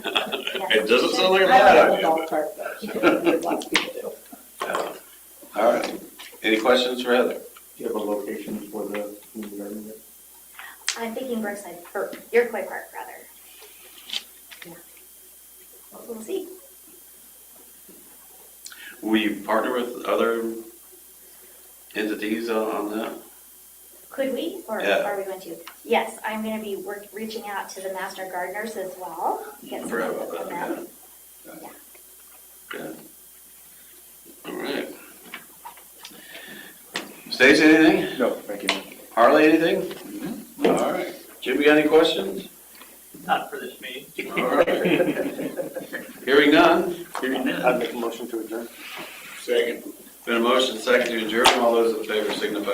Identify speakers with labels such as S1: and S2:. S1: It doesn't sound like a
S2: I
S1: bad
S2: don't
S1: idea,
S2: know, golf cart, lots of people do.
S3: Uh, All right. Any questions for Heather?
S4: Do you have a location for the community garden yet?
S5: I'm thinking Brookside, or Iroquois Park, rather. Yeah. But We'll see.
S3: Will you partner with other entities on- on that?
S5: Could we, or
S3: Yeah.
S5: are we going to? Yes, I'm going to be work, reaching out to the master gardeners as well. Get some
S3: Forgot
S5: input
S3: about
S5: from
S3: that,
S5: them.
S3: yeah. Good. All right. Stacy, anything?
S4: No, thank you.
S3: Harley, anything?
S6: Mm-hmm.
S3: All right. Jim, you got any questions?
S6: Not for this meeting.
S3: All right. Hearing none.
S6: Hearing none.
S4: I'd make a motion to adjourn.
S1: Second.
S3: Been a motion second to adjourn. All those in favor signify